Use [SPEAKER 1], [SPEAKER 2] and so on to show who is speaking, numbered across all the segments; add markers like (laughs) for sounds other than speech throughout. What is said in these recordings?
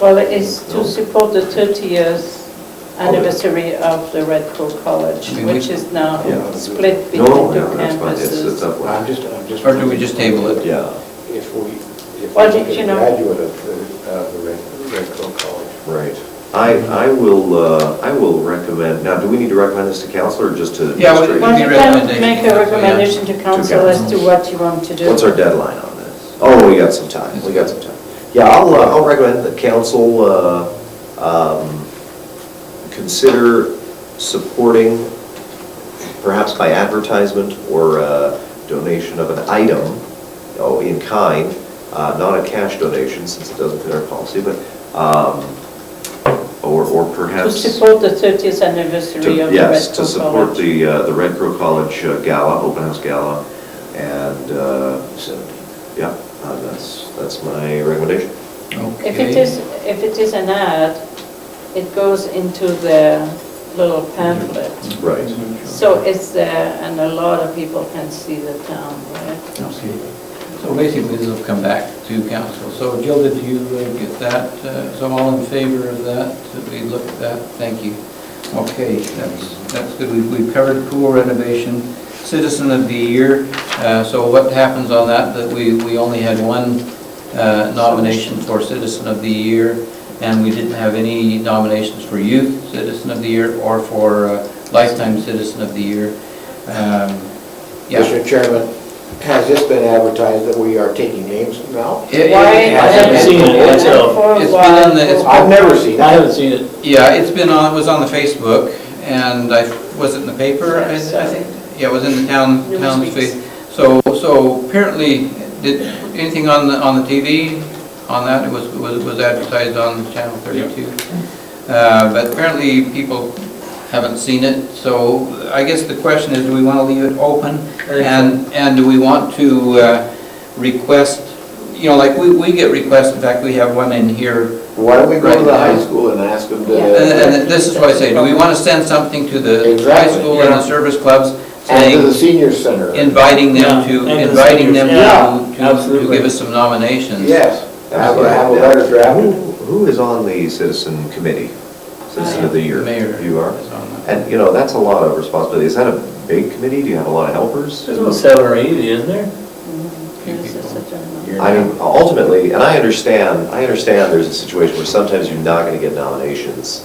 [SPEAKER 1] Well, it is to
[SPEAKER 2] No.
[SPEAKER 1] support the 30 years anniversary of the Red Crow College,
[SPEAKER 2] I mean, we-
[SPEAKER 1] which is now
[SPEAKER 3] Yeah.
[SPEAKER 1] split between
[SPEAKER 2] No,
[SPEAKER 1] the
[SPEAKER 2] no, that's fine, it's, it's
[SPEAKER 1] campuses.
[SPEAKER 2] that
[SPEAKER 3] I'm
[SPEAKER 2] one.
[SPEAKER 3] just, I'm just.
[SPEAKER 2] Or do we just table it?
[SPEAKER 4] Yeah,
[SPEAKER 3] If we, if
[SPEAKER 1] Well,
[SPEAKER 3] we
[SPEAKER 1] did you
[SPEAKER 3] get a
[SPEAKER 1] know-
[SPEAKER 3] graduate of the, of the Red, Red Crow College.
[SPEAKER 4] right. I, I will, uh, I will recommend, now, do we need to recommend this to council or just to?
[SPEAKER 2] Yeah, we-
[SPEAKER 1] Well,
[SPEAKER 4] administration?
[SPEAKER 1] you
[SPEAKER 2] recommendation,
[SPEAKER 1] can make
[SPEAKER 2] yeah.
[SPEAKER 1] a recommendation to council as to what you want to do.
[SPEAKER 4] What's our deadline on this? Oh, we got some time, we got some time. Yeah, I'll, uh, I'll recommend that council uh, um, consider supporting, perhaps by advertisement or uh, donation of an item, oh, in kind, uh, not a cash donation since it doesn't fit our policy, but, um, or or
[SPEAKER 1] To
[SPEAKER 4] perhaps...
[SPEAKER 1] support the 30th anniversary
[SPEAKER 4] To-
[SPEAKER 1] of the Red
[SPEAKER 4] Yes, to
[SPEAKER 1] Crow
[SPEAKER 4] support
[SPEAKER 1] College.
[SPEAKER 4] the, uh, the Red Crow College uh, Gala, open house gala, and, uh, yeah, uh, that's, that's my recommendation.
[SPEAKER 1] If it is, if it is an ad, it goes into the little pamphlet.
[SPEAKER 4] Right.
[SPEAKER 1] So it's there, and a lot of people can see the town, right?
[SPEAKER 2] Okay. So basically, this will come back to council. So Gilda, do you uh, get that? Uh, So all in favor of that? Did we look at that? Thank you. Okay, that's, that's good. We've- We've covered pool renovation, citizen of the year. Uh, So what happens on that? That we, we only had one uh, nomination for citizen of the year, and we didn't have any nominations for youth citizen of the year or for uh, lifetime citizen of the year. Um, Yeah.
[SPEAKER 3] Mr. Chairman, has this been advertised that we are taking names now?
[SPEAKER 2] It- it-
[SPEAKER 1] Why-
[SPEAKER 2] it
[SPEAKER 3] I haven't
[SPEAKER 2] hasn't-
[SPEAKER 3] seen it
[SPEAKER 5] myself.
[SPEAKER 1] For a
[SPEAKER 2] It's been
[SPEAKER 1] while.
[SPEAKER 2] in the- it's
[SPEAKER 3] I've never seen
[SPEAKER 5] I
[SPEAKER 3] that.
[SPEAKER 5] haven't seen it.
[SPEAKER 2] Yeah, it's been on, it was on the Facebook, and I, was it in the paper? I I think, yeah, it was in the town,
[SPEAKER 1] It was
[SPEAKER 2] town's
[SPEAKER 1] weeks.
[SPEAKER 2] Facebook. So, so apparently, did, anything on the, on the TV on that, it was, was was advertised on Channel 32? Uh, But apparently, people haven't seen it, so I guess the question is, do we want to leave it open? And, and do we want to uh, request, you know, like, we, we get requests, in fact, we have one in here
[SPEAKER 3] Why don't we go to the
[SPEAKER 2] Right.
[SPEAKER 3] high school and ask them to?
[SPEAKER 1] Yeah.
[SPEAKER 2] and and this is why I say, do we want to send something to the high
[SPEAKER 3] Exactly,
[SPEAKER 2] school and the
[SPEAKER 5] yeah.
[SPEAKER 2] service clubs
[SPEAKER 3] And to the
[SPEAKER 2] saying,
[SPEAKER 3] senior center?
[SPEAKER 2] inviting them
[SPEAKER 5] Yeah,
[SPEAKER 2] to,
[SPEAKER 5] and the
[SPEAKER 2] inviting them
[SPEAKER 5] seniors,
[SPEAKER 2] to-
[SPEAKER 5] yeah,
[SPEAKER 2] to, to
[SPEAKER 5] absolutely.
[SPEAKER 2] give us some nominations?
[SPEAKER 3] Yes, have a, have a
[SPEAKER 4] Now,
[SPEAKER 3] letter
[SPEAKER 4] Who
[SPEAKER 3] drafted.
[SPEAKER 4] who is on the citizen committee, citizen of the year?
[SPEAKER 2] Mayor.
[SPEAKER 4] You are?
[SPEAKER 2] is on that.
[SPEAKER 4] And, you know, that's a lot of responsibility. Is that a big committee? Do you have a lot of helpers?
[SPEAKER 5] There's about seven or eight, isn't there?
[SPEAKER 2] Few
[SPEAKER 1] This is
[SPEAKER 2] people.
[SPEAKER 1] such a-
[SPEAKER 4] I mean, ultimately, and I understand, I understand there's a situation where sometimes you're not going to get nominations,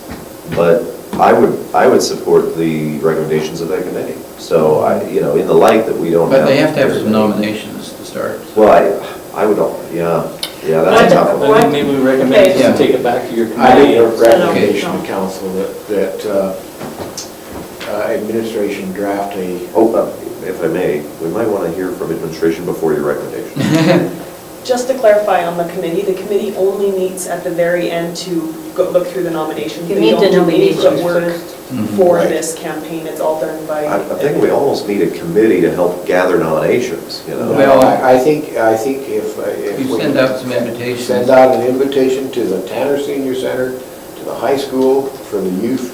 [SPEAKER 4] but I would, I would support the recommendations of that committee. So I, you know, in the light that we don't have.
[SPEAKER 2] But they have to have some nominations to start.
[SPEAKER 4] Well, I, I would, al- yeah, yeah, that's a tough one.
[SPEAKER 1] What?
[SPEAKER 5] I think maybe we recommend you
[SPEAKER 2] Yeah.
[SPEAKER 5] take it back to your
[SPEAKER 3] I think a
[SPEAKER 5] committee.
[SPEAKER 3] recommendation to council that, that uh, uh, administration draft a,
[SPEAKER 4] Oh, uh, if I may, we might want to hear from administration before your
[SPEAKER 2] (laughs)
[SPEAKER 4] recommendation.
[SPEAKER 6] Just to clarify on the committee, the committee only meets at the very end to go, look through the nominations.
[SPEAKER 1] You
[SPEAKER 6] They
[SPEAKER 1] need
[SPEAKER 6] don't
[SPEAKER 1] the
[SPEAKER 6] do any of
[SPEAKER 1] nominations
[SPEAKER 6] work
[SPEAKER 1] first.
[SPEAKER 6] for
[SPEAKER 4] Mm-hmm. Right.
[SPEAKER 6] this campaign, it's all done by.
[SPEAKER 4] I, I think we almost need a committee to help gather nominations, you know?
[SPEAKER 2] Well-
[SPEAKER 3] I I think, I think if, uh, if
[SPEAKER 2] You
[SPEAKER 3] we.
[SPEAKER 2] send out some invitations.
[SPEAKER 3] Send out an invitation to the Tanner Senior Center, to the high school, for the youth,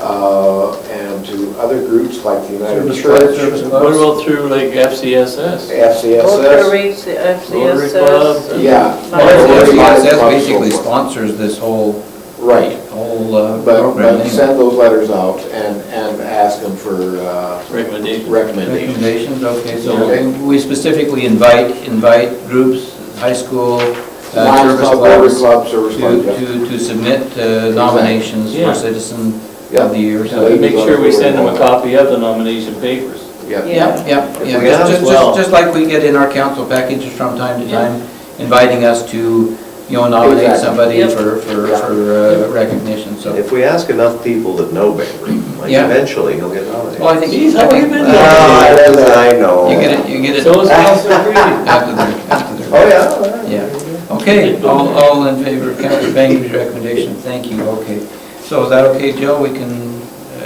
[SPEAKER 3] uh, and to other groups like the United
[SPEAKER 2] Service club,
[SPEAKER 3] Church,
[SPEAKER 2] service club.
[SPEAKER 5] What about through like FCSS?
[SPEAKER 3] FCSS.
[SPEAKER 1] Rotaries, the
[SPEAKER 5] Rotary club,
[SPEAKER 1] FCSS.
[SPEAKER 5] and-
[SPEAKER 3] Yeah.
[SPEAKER 2] Well, that's-
[SPEAKER 3] Rotary
[SPEAKER 2] that's-
[SPEAKER 3] club,
[SPEAKER 2] That's
[SPEAKER 3] so
[SPEAKER 2] basically
[SPEAKER 3] forth.
[SPEAKER 2] sponsors this whole,
[SPEAKER 3] Right,
[SPEAKER 2] whole uh,
[SPEAKER 3] but,
[SPEAKER 2] program.
[SPEAKER 3] but
[SPEAKER 2] anyway.
[SPEAKER 3] send those letters out and, and ask them for uh,
[SPEAKER 5] Recommendation.
[SPEAKER 3] recommendations.
[SPEAKER 2] Recommendations, okay,
[SPEAKER 3] Okay.
[SPEAKER 2] so we specifically invite, invite groups, high school, uh,
[SPEAKER 3] Lions
[SPEAKER 2] service
[SPEAKER 3] Club, Rotary
[SPEAKER 2] clubs,
[SPEAKER 3] Club, Service Club,
[SPEAKER 2] to,
[SPEAKER 3] yeah.
[SPEAKER 2] to, to submit uh, nominations
[SPEAKER 5] Yeah.
[SPEAKER 2] for citizen
[SPEAKER 3] Yeah.
[SPEAKER 2] of the year, so.
[SPEAKER 3] Yeah.
[SPEAKER 5] Make sure we send them a copy of the nomination papers.
[SPEAKER 3] yeah.
[SPEAKER 2] Yeah, yeah,
[SPEAKER 4] If
[SPEAKER 2] yeah,
[SPEAKER 4] we
[SPEAKER 2] just,
[SPEAKER 4] have-
[SPEAKER 2] just-
[SPEAKER 5] Well-
[SPEAKER 2] just like we get in our council packages from time to time, inviting us to, you know, nominate
[SPEAKER 3] Exactly.
[SPEAKER 2] somebody
[SPEAKER 1] Yep.
[SPEAKER 2] for, for,
[SPEAKER 3] Yeah.
[SPEAKER 2] for uh, recognition, so.
[SPEAKER 4] If we ask enough people that know Bakery, like
[SPEAKER 2] Yeah.
[SPEAKER 4] eventually he'll get nominated.
[SPEAKER 2] Well, I think.
[SPEAKER 5] Geez, how
[SPEAKER 2] I
[SPEAKER 5] have you
[SPEAKER 2] think-
[SPEAKER 5] been
[SPEAKER 4] No, I don't- I know.
[SPEAKER 2] You get it, you get it
[SPEAKER 5] So is Councilor Creedy.
[SPEAKER 2] after the, after the.
[SPEAKER 4] Oh, yeah.
[SPEAKER 2] Yeah, okay, all, all in favor of Counselor Bangery's recommendation, thank you, okay. So is that okay, Joe, we can uh,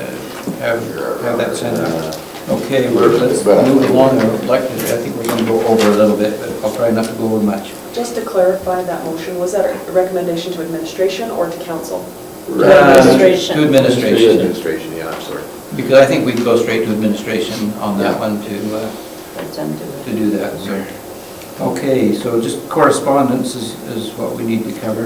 [SPEAKER 2] have, have that sent out? Okay, we're, let's move along, I would like to, I think we're gonna go over a little bit, but I'll try not to go over much.
[SPEAKER 6] Just to clarify that motion, was that a recommendation to administration or to council?
[SPEAKER 1] Administration.
[SPEAKER 2] Uh, To administration,
[SPEAKER 3] Uh, Administration, yeah, I'm sorry.
[SPEAKER 2] because I think we can go straight to administration on that one to, uh,
[SPEAKER 1] Let them do it.
[SPEAKER 2] to do that, so. Okay, so just correspondence is, is what we need to cover.